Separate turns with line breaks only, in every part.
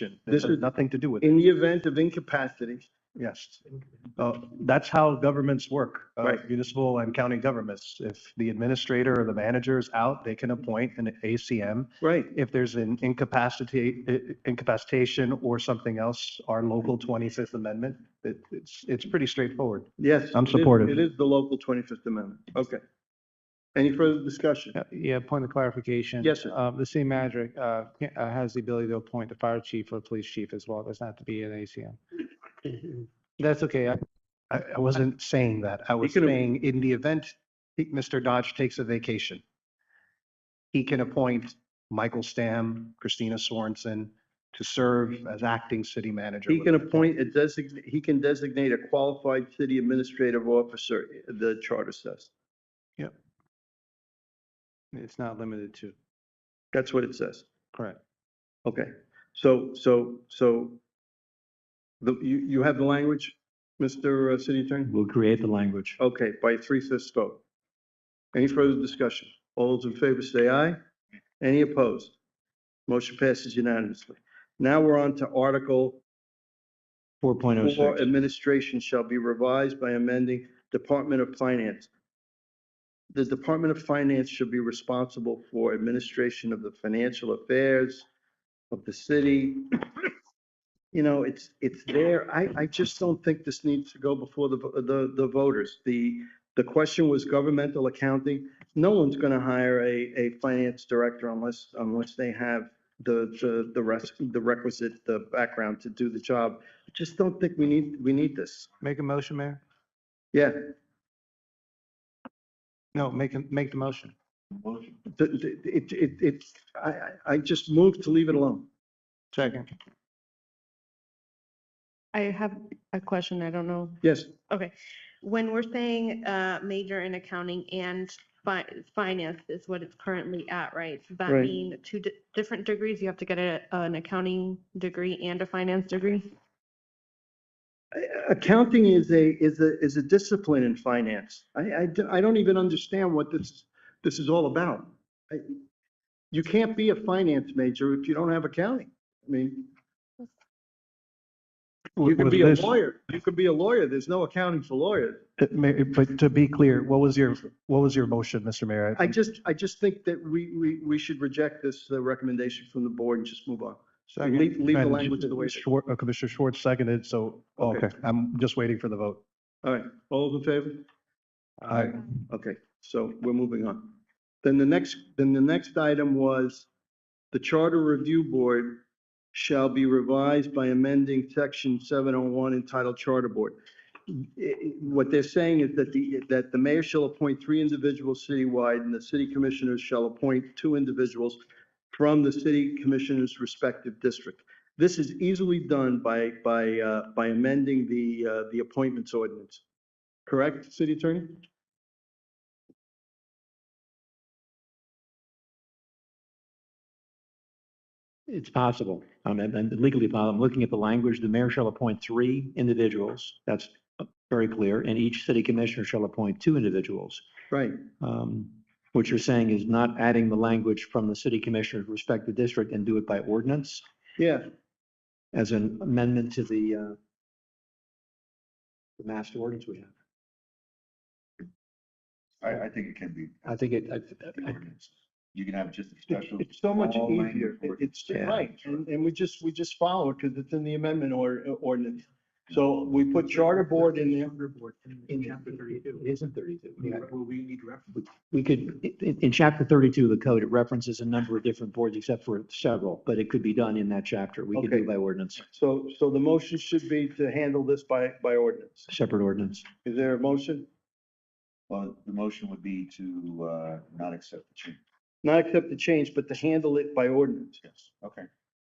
This
This
has
is-
nothing to do with it.
In the event of incapacity,
Yes. Uh, That's how governments work, uh,
Right.
municipal and county governments. If the administrator or the manager is out, they can appoint an ACM.
right,
If there's an incapacity, i- incapacitation or something else, our local 25th Amendment, it- it's, it's pretty straightforward.
yes.
I'm
it is-
supportive.
It is the local 25th Amendment. Okay. Any further discussion?
Uh, Yeah, point of clarification.
Yes, sir.
Uh, The city manager uh, can- uh, has the ability to appoint a fire chief or police chief as well. It doesn't have to be an ACM. That's okay. I-
I, I wasn't saying that. I was
can have-
saying in the event he- Mr. Dodge takes a vacation, he can appoint Michael Stamm, Christina Sorensen to serve as acting city manager.
He
with
can
the-
appoint a designate, he can designate a qualified city administrative officer, the charter says.
It's not limited to,
That's what it says.
correct.
Okay, so, so, so the, you, you have the language, Mr. City Attorney?
We'll create the language.
Okay, by three-fifths vote. Any further discussion? All those in favor say aye. Any opposed? Motion passes unanimously. Now we're on to Article
Four point oh
Four,
six.
administration shall be revised by amending Department of Finance. The Department of Finance should be responsible for administration of the financial affairs of the city. You know, it's, it's there. I, I just don't think this needs to go before the, vo- the, the voters. The, the question was governmental accounting. No one's gonna hire a, a finance director unless, unless they have the, the, the rest, the requisite, the background to do the job just don't think we need, we need this.
Make a motion, Mayor?
Yeah,
No, make, a- make the motion.
the- the- it, it, it, I, I- I just moved to leave it alone.
Second.
I have a question. I don't know.
Yes,
Okay. When we're saying uh, major in accounting and fi- finance is what it's currently at, right? Does that
Right.
mean two di- different degrees? You have to get a- an accounting degree and a finance degree?
A- accounting is a, is a, is a discipline in finance. I, I, d- I don't even understand what this, this is all about. I- You can't be a finance major if you don't have accounting. I mean, you can
With
be a
this-
lawyer, you can be a lawyer, there's no accounting for lawyers.
Uh, Mayor, But to be clear, what was your, what was your motion, Mr. Mayor?
I just, I just think that we, we, we should reject this uh, recommendation from the board and just move on. Leave, leave the
And
language the way it is.
Schwar- uh, Commissioner Schwartz seconded, so,
Okay.
okay, I'm just waiting for the vote.
All right, all those in favor?
I,
Okay, so we're moving on. Then the next, then the next item was the Charter Review Board shall be revised by amending section seven oh one entitled Charter Board. I- I- What they're saying is that the, that the mayor shall appoint three individuals citywide and the city commissioners shall appoint two individuals from the city commissioners' respective district. This is easily done by, by, uh, by amending the, uh, the appointments ordinance. Correct, city attorney?
It's possible. I'm, I'm legally, possible. I'm looking at the language. The mayor shall appoint three individuals. That's uh, very clear. And each city commissioner shall appoint two individuals.
Right.
Um, What you're saying is not adding the language from the city commissioner's respective district and do it by ordinance
Yeah,
as an amendment to the, uh, the master ordinance we have.
I, I think it can be.
I think it, I- I-
ordinance. You can have just a special.
it's so much
small language
easier. It-
ordinance.
It's, right, and, and we just, we just follow it because it's in the amendment or, ordinance. So we put charter board in there.
In chapter thirty-two. It isn't thirty-two. we need reference. We could, i- in, in chapter thirty-two of the code, it references a number of different boards except for several, but it could be done in that chapter. We could do
Okay.
it by ordinance,
So, so the motion should be to handle this by, by ordinance.
separate ordinance.
Is there a motion?
Well, the motion would be to, uh, not accept the change.
Not accept the change, but to handle it by ordinance.
Yes. Okay.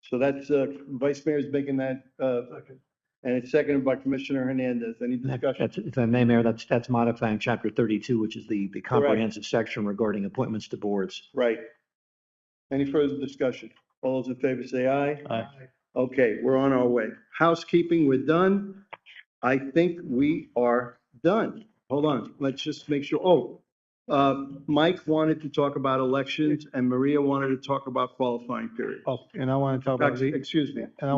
So that's, uh, Vice Mayor's making that, uh, and it's seconded by Commissioner Hernandez. Any
And that-
discussion?
that's- If I may, Mayor, that's, that's modifying chapter thirty-two, which is the, the comprehensive section regarding appointments to boards.
Right. Any further discussion? All those in favor say aye.
Aye.
Okay, we're on our way. Housekeeping, we're done. I think we are done. Hold on, let's just make sure. Oh, Uh, Mike wanted to talk about elections and Maria wanted to talk about qualifying period.
Oh, and I want to talk about, the-
Excuse me.
and I